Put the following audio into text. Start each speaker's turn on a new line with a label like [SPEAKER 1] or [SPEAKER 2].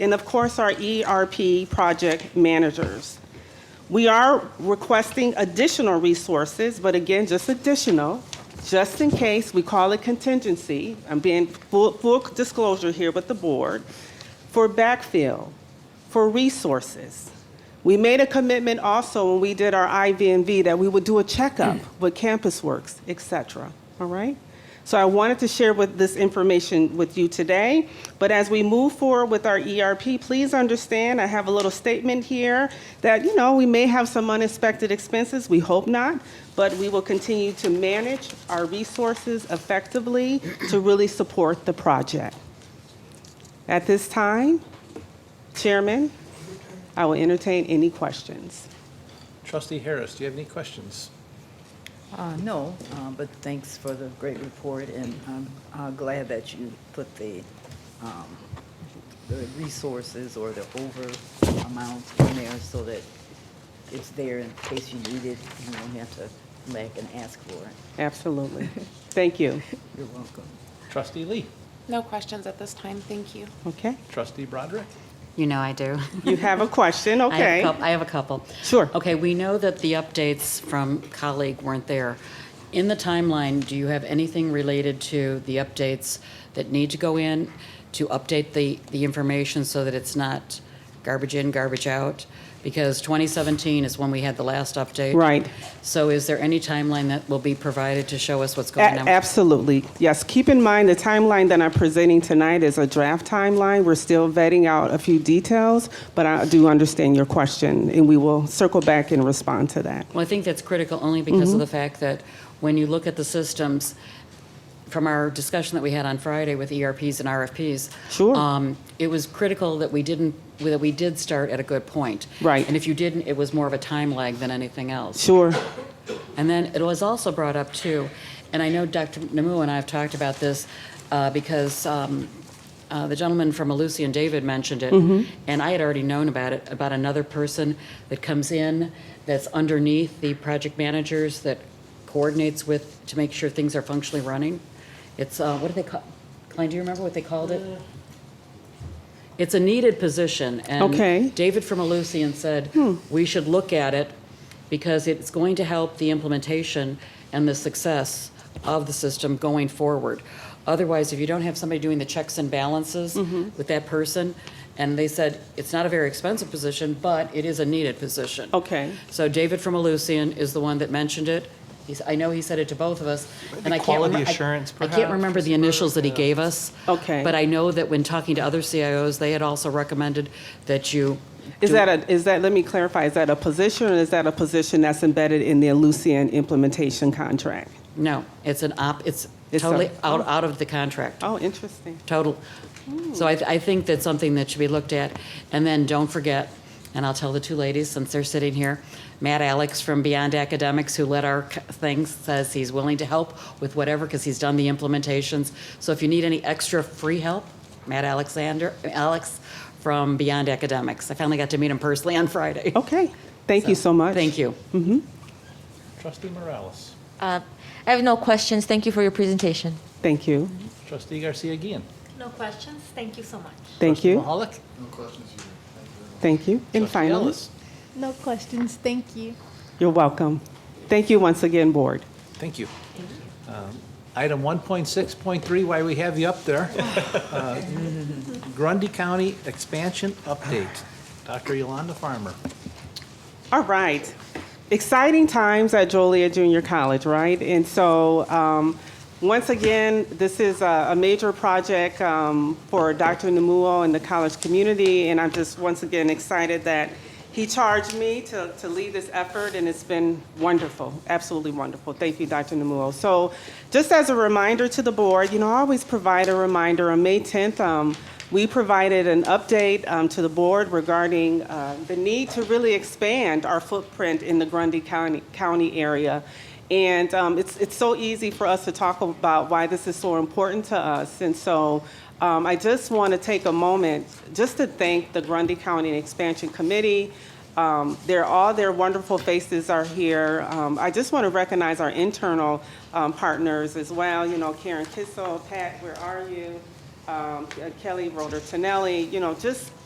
[SPEAKER 1] and of course, our ERP project managers. We are requesting additional resources, but again, just additional, just in case, we call it contingency. I'm being full, full disclosure here with the board, for backfill, for resources. We made a commitment also when we did our IVNV that we would do a checkup with Campus Works, et cetera, all right? So I wanted to share with this information with you today. But as we move forward with our ERP, please understand, I have a little statement here that, you know, we may have some unexpected expenses, we hope not, but we will continue to manage our resources effectively to really support the project. At this time, Chairman, I will entertain any questions.
[SPEAKER 2] Trustee Harris, do you have any questions?
[SPEAKER 3] Uh, No, uh, but thanks for the great report, and I'm uh, glad that you put the um, the resources or the over amount in there so that it's there in case you need it, you don't have to lag and ask for it.
[SPEAKER 1] Absolutely. Thank you.
[SPEAKER 3] You're welcome.
[SPEAKER 2] Trustee Lee,
[SPEAKER 4] No questions at this time, thank you.
[SPEAKER 1] Okay.
[SPEAKER 2] Trustee Broderick,
[SPEAKER 5] You know I do.
[SPEAKER 1] You have a question,
[SPEAKER 5] I have a
[SPEAKER 1] okay?
[SPEAKER 5] coup- I have a couple.
[SPEAKER 1] Sure.
[SPEAKER 5] Okay, we know that the updates from colleague weren't there. In the timeline, do you have anything related to the updates that need to go in to update the, the information so that it's not garbage in, garbage out? Because 2017 is when we had the last update.
[SPEAKER 1] Right.
[SPEAKER 5] So is there any timeline that will be provided to show us what's
[SPEAKER 1] A-
[SPEAKER 5] going on?
[SPEAKER 1] Absolutely. Yes, keep in mind, the timeline that I'm presenting tonight is a draft timeline. We're still vetting out a few details, but I do understand your question, and we will circle back and respond to that.
[SPEAKER 5] Well, I think that's critical only
[SPEAKER 1] Mm-hmm.
[SPEAKER 5] because of the fact that when you look at the systems, from our discussion that we had on Friday with ERPs and RFPs,
[SPEAKER 1] Sure.
[SPEAKER 5] um, it was critical that we didn't that we did start at a good point.
[SPEAKER 1] Right.
[SPEAKER 5] And if you didn't, it was more of a time lag than anything else.
[SPEAKER 1] Sure,
[SPEAKER 5] And then it was also brought up too, and I know Dr. Namu and I have talked about this uh, because um, uh, the gentleman from Alucy and David mentioned it, and I had already known about it, about another person that comes in that's underneath the project managers that coordinates with, to make sure things are functionally running. It's, uh, what do they call, Klein, do you remember what they called it? It's a needed position.
[SPEAKER 1] Okay.
[SPEAKER 5] And David from Alucion said, we should look at it because it's going to help the implementation and the success of the system going forward. Otherwise, if you don't have somebody doing the checks and balances with that person, and they said, it's not a very expensive position, but it is a needed position.
[SPEAKER 1] Okay.
[SPEAKER 5] So David from Alucion is the one that mentioned it. He's, I know he said it to both of us, and I can't.
[SPEAKER 2] Quality
[SPEAKER 5] remem- I-
[SPEAKER 2] assurance,
[SPEAKER 5] I can't
[SPEAKER 2] perhaps,
[SPEAKER 5] remember the initials that he gave us.
[SPEAKER 1] Okay.
[SPEAKER 5] But I know that when talking to other CIOs, they had also recommended that you.
[SPEAKER 1] Is
[SPEAKER 5] do-
[SPEAKER 1] that a, is that, let me clarify, is that a position, or is that a position that's embedded in the Lucian implementation contract?
[SPEAKER 5] No, it's an op, it's
[SPEAKER 1] It's a-
[SPEAKER 5] totally out, out of the contract,
[SPEAKER 1] Oh, interesting.
[SPEAKER 5] total. So I, I think that's something that should be looked at. And then don't forget, and I'll tell the two ladies since they're sitting here, Matt Alex from Beyond Academics, who led our c- thing, says he's willing to help with whatever, because he's done the implementations. So if you need any extra free help, Matt Alexander, Alex from Beyond Academics. I finally got to meet him personally on Friday.
[SPEAKER 1] Okay, Oh, thank you so much.
[SPEAKER 5] Thank you.
[SPEAKER 2] Trustee Morales,
[SPEAKER 6] Uh, I have no questions. Thank you for your presentation.
[SPEAKER 1] Thank you,
[SPEAKER 2] Trustee Garcia Guian,
[SPEAKER 7] No questions? Thank you so much.
[SPEAKER 1] thank
[SPEAKER 2] Trustee
[SPEAKER 1] you,
[SPEAKER 2] Mahalik,
[SPEAKER 1] thank you. And
[SPEAKER 2] Trustee
[SPEAKER 1] finally,
[SPEAKER 2] Ellis.
[SPEAKER 8] No questions, thank you.
[SPEAKER 1] you're welcome. Thank you once again, Board.
[SPEAKER 2] Thank you. Um, Item 1.6.3, why we have you up there. Uh, Grundy County Expansion Update. Dr. Yolanda Farmer.
[SPEAKER 1] All right. Exciting times at Joliet Junior College, right? And so, um, once again, this is a, a major project um, for Dr. Namuo and the college community, and I'm just once again excited that he charged me to, to lead this effort, and it's been wonderful, absolutely wonderful. Thank you, Dr. Namuo. So, just as a reminder to the board, you know, I always provide a reminder on May 10th. Um, we provided an update um, to the board regarding uh, the need to really expand our footprint in the Grundy County, County area. And um, it's, it's so easy for us to talk about why this is so important to us. And so um, I just want to take a moment just to thank the Grundy County Expansion Committee. Um, they're all their wonderful faces are here. Um, I just want to recognize our internal um, partners as well. You know, Karen Kissel, Pat, where are you? um, Kelly Roder Tonelli, you know, just